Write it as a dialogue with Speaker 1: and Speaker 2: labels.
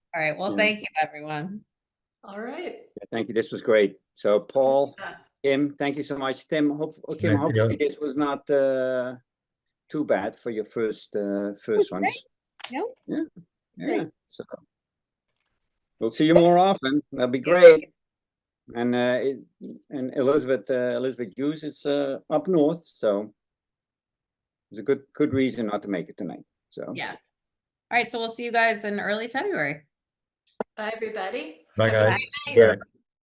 Speaker 1: All right, well,
Speaker 2: Yeah.
Speaker 1: thank you, everyone.
Speaker 3: All right.
Speaker 2: Thank you. This was great. So Paul,
Speaker 3: Good stuff.
Speaker 2: Tim, thank you so much. Tim, hope, okay,
Speaker 4: Thank you.
Speaker 2: hopefully this was not, uh, too bad for your first, uh, first ones.
Speaker 1: No.
Speaker 2: Yeah,
Speaker 1: great.
Speaker 2: yeah, so. We'll see you more often. That'd be great. And, uh, it- and Elizabeth, uh, Elizabeth Hughes is, uh, up north, so. It's a good, good reason not to make it tonight, so.
Speaker 1: Yeah. All right, so we'll see you guys in early February.
Speaker 3: Bye, everybody.
Speaker 4: Bye,
Speaker 3: Have a
Speaker 4: guys.
Speaker 3: nice night.
Speaker 4: Good.